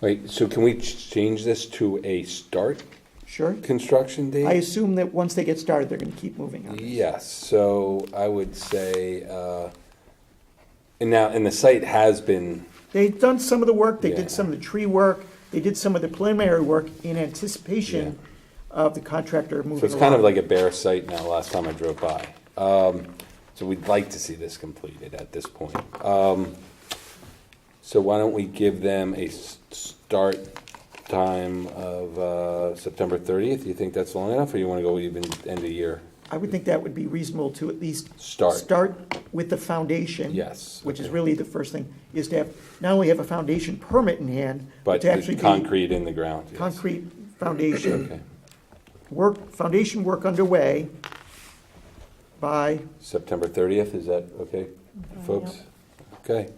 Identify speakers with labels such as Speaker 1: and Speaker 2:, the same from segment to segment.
Speaker 1: Wait, so can we ch- change this to a start
Speaker 2: Sure.
Speaker 1: construction date?
Speaker 2: I assume that once they get started, they're gonna keep moving on. this.
Speaker 1: Yes, so I would say, uh, and now, and the site has been,
Speaker 2: They've done some of the work, they
Speaker 1: Yeah.
Speaker 2: did some of the tree work, they did some of the preliminary work in anticipation of the contractor moving along.
Speaker 1: so it's kind of like a bare site now, last time I drove by. Um, So we'd like to see this completed at this point. Um, So why don't we give them a s- start time of uh, September 30th? You think that's long enough, or you want to go even end of year?
Speaker 2: I would think that would be reasonable to at least.
Speaker 1: Start.
Speaker 2: with the foundation.
Speaker 1: Yes,
Speaker 2: Which is
Speaker 1: okay.
Speaker 2: really the first thing, is to have, not only have a foundation permit in hand, but
Speaker 1: But
Speaker 2: to actually
Speaker 1: the
Speaker 2: be.
Speaker 1: concrete in the ground, yes.
Speaker 2: Concrete foundation,
Speaker 1: Okay,
Speaker 2: work, foundation work underway by,
Speaker 1: September 30th, is that okay, folks? Okay.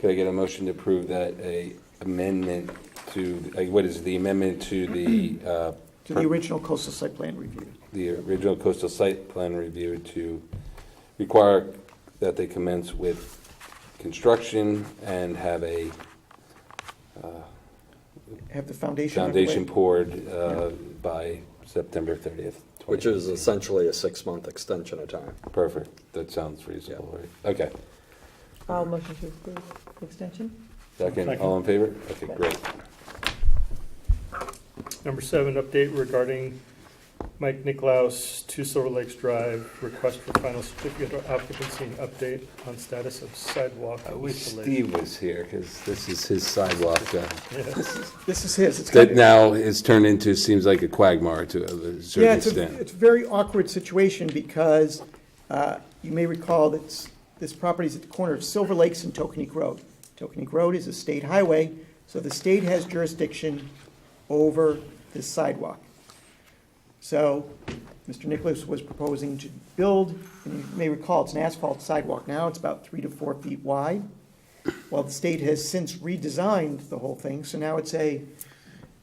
Speaker 1: Could I get a motion to approve that a amendment to, uh, what is the amendment to the, uh,
Speaker 2: to the original coastal site plan review.
Speaker 1: the original coastal site plan review to require that they commence with construction and have a
Speaker 2: Have the foundation underway.
Speaker 1: foundation poured uh, by September 30th?
Speaker 3: Which is essentially a six-month extension of time.
Speaker 1: Perfect, that sounds reasonable, right? Okay.
Speaker 4: I'll motion to approve the extension.
Speaker 1: Second, all in favor? Okay, great.
Speaker 5: Number seven, update regarding Mike Nicklaus, Two Silver Lakes Drive, request for final certificate of occupancy and update on status of sidewalk.
Speaker 1: I
Speaker 5: at
Speaker 1: wish
Speaker 5: East Lake.
Speaker 1: Steve was here, because this is his sidewalk. uh,
Speaker 5: Yes.
Speaker 2: This is his, it's kind
Speaker 1: That
Speaker 2: of.
Speaker 1: now is turned into, seems like a quagmire to a certain
Speaker 2: Yeah, it's a,
Speaker 1: extent.
Speaker 2: it's a very awkward situation because uh, you may recall that s- this property is at the corner of Silver Lakes and Tokenique Road. Tokenique Road is a state highway, so the state has jurisdiction over this sidewalk. So Mr. Nicholas was proposing to build, and you may recall, it's an asphalt sidewalk now, it's about three to four feet wide. Well, the state has since redesigned the whole thing, so now it's a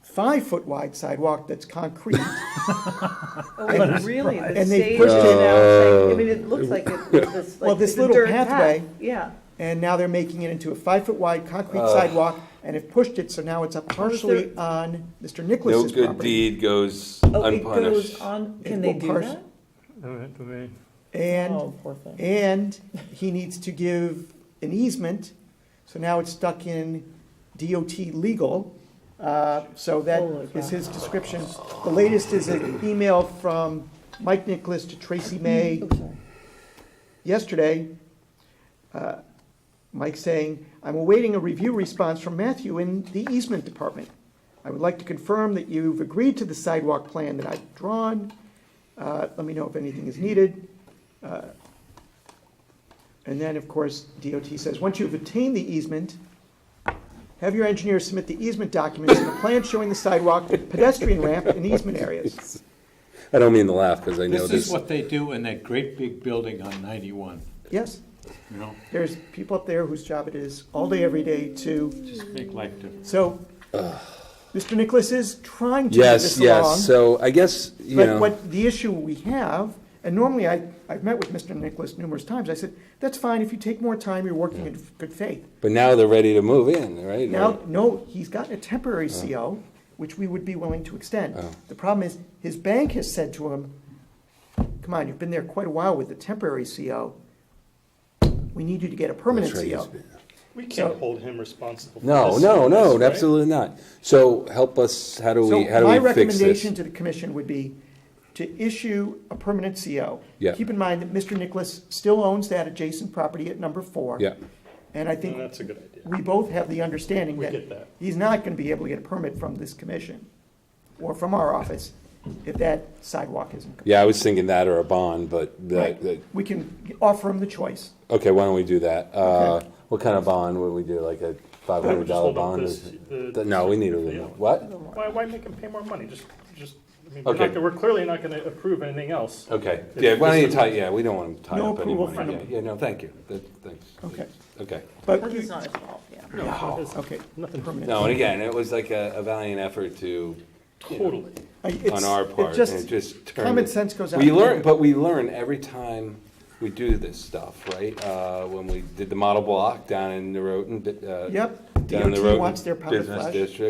Speaker 2: five-foot wide sidewalk that's concrete.
Speaker 4: Oh, really? The
Speaker 2: And they
Speaker 4: stage
Speaker 2: pushed
Speaker 4: is
Speaker 2: it-
Speaker 4: now saying- I mean, it looks like it, this, like.
Speaker 2: Well, this
Speaker 4: it's a
Speaker 2: little
Speaker 4: dirt path.
Speaker 2: pathway-
Speaker 4: Yeah.
Speaker 2: And now they're making it into a five-foot-wide concrete sidewalk, and have pushed it, so now it's up partially on Mr.
Speaker 1: No
Speaker 2: Nicholas's
Speaker 1: good
Speaker 2: property.
Speaker 1: deed goes
Speaker 4: Oh, it
Speaker 1: unpunished.
Speaker 4: goes on,
Speaker 2: It
Speaker 4: can they
Speaker 2: will
Speaker 4: do
Speaker 2: parse-
Speaker 4: that?
Speaker 5: All right, I mean,
Speaker 2: And,
Speaker 4: Oh, poor thing.
Speaker 2: and he needs to give an easement, so now it's stuck in DOT legal. Uh, So that
Speaker 4: Holy cow.
Speaker 2: is his description. The latest is an email from Mike Nicholas to Tracy May
Speaker 4: Oh, sorry.
Speaker 2: yesterday, uh, Mike saying, "I'm awaiting a review response from Matthew in the easement department. I would like to confirm that you've agreed to the sidewalk plan that I've drawn. Uh, Let me know if anything is needed." Uh, And then, of course, DOT says, "Once you've obtained the easement, have your engineer submit the easement documents and a plan showing the sidewalk, pedestrian ramp, and easement areas."
Speaker 1: I don't mean to laugh, because I know
Speaker 6: This is
Speaker 1: this,
Speaker 6: what they do in that great big building on 91,
Speaker 2: Yes,
Speaker 6: you know,
Speaker 2: there's people up there whose job it is all day, every day to
Speaker 6: just make life different.
Speaker 2: So, Mr. Nicholas is trying to move
Speaker 1: yes,
Speaker 2: this along.
Speaker 1: yes, so I guess, you
Speaker 2: But
Speaker 1: know,
Speaker 2: what the issue we have, and normally I, I've met with Mr. Nicholas numerous times, I said, that's fine, if you take more time, you're working in good faith.
Speaker 1: but now they're ready to move in, right?
Speaker 2: Now, no, he's gotten a temporary CO, which we would be willing to extend.
Speaker 1: Oh.
Speaker 2: The problem is, his bank has said to him, come on, you've been there quite a while with the temporary CO. We need you to get a permanent
Speaker 1: That's right,
Speaker 2: CO.
Speaker 1: he's been-
Speaker 5: We can't hold him responsible. for
Speaker 1: No,
Speaker 5: this,
Speaker 1: no, no,
Speaker 5: right?
Speaker 1: absolutely not. So help us, how do
Speaker 2: So
Speaker 1: we, how do
Speaker 2: my
Speaker 1: we fix
Speaker 2: recommendation
Speaker 1: this?
Speaker 2: to the commission would be to issue a permanent CO.
Speaker 1: Yeah.
Speaker 2: Keep in mind that Mr. Nicholas still owns that adjacent property at number four.
Speaker 1: Yeah,
Speaker 2: And I
Speaker 5: No,
Speaker 2: think
Speaker 5: That's a good idea.
Speaker 2: we both have the understanding
Speaker 5: We get
Speaker 2: that
Speaker 5: that.
Speaker 2: he's not going to be able to get a permit from this commission or from our office if that sidewalk isn't. complete.
Speaker 1: yeah, I was thinking that or a bond, but, that-
Speaker 2: Right.
Speaker 1: that-
Speaker 2: We can offer him the choice.
Speaker 1: okay, why don't we do that? Uh,
Speaker 2: Okay.
Speaker 1: What kind of bond would we do, like a
Speaker 5: Why don't we
Speaker 1: $500
Speaker 5: just hold up
Speaker 1: bond? or
Speaker 5: this-
Speaker 1: something?
Speaker 5: the-
Speaker 1: No, we need a
Speaker 5: Yeah.
Speaker 1: little, what?
Speaker 5: Why, why make him pay more money? Just, just, I mean, we're
Speaker 1: Okay.
Speaker 5: not gonna- we're clearly not gonna approve anything else.
Speaker 1: Okay,
Speaker 5: If
Speaker 1: yeah, why don't you
Speaker 5: this-
Speaker 1: tie, yeah, we don't want to tie
Speaker 2: No
Speaker 1: up any
Speaker 2: approval
Speaker 1: money.
Speaker 5: from
Speaker 1: Yeah,
Speaker 5: the-
Speaker 1: Yeah, no, thank you, That- thanks.
Speaker 2: Okay.
Speaker 1: Okay,
Speaker 2: But,
Speaker 4: Because it's not his fault, yeah.
Speaker 5: No, it's
Speaker 2: okay,
Speaker 5: Nothing,
Speaker 2: permanent.
Speaker 1: no, and again, it was like a a valiant effort to,
Speaker 5: totally.
Speaker 2: I- it's-
Speaker 1: on our
Speaker 2: it
Speaker 1: part, and
Speaker 2: just-
Speaker 1: it just turned.
Speaker 2: common sense goes out
Speaker 1: We
Speaker 2: the
Speaker 1: learn,
Speaker 2: window.
Speaker 1: but we learn every time we do this stuff, right? Uh, When we did the model block down in Norotan, but, uh,
Speaker 2: Yep,
Speaker 1: down the road.
Speaker 2: DOT wants their powder
Speaker 1: Business
Speaker 2: flash.
Speaker 1: district.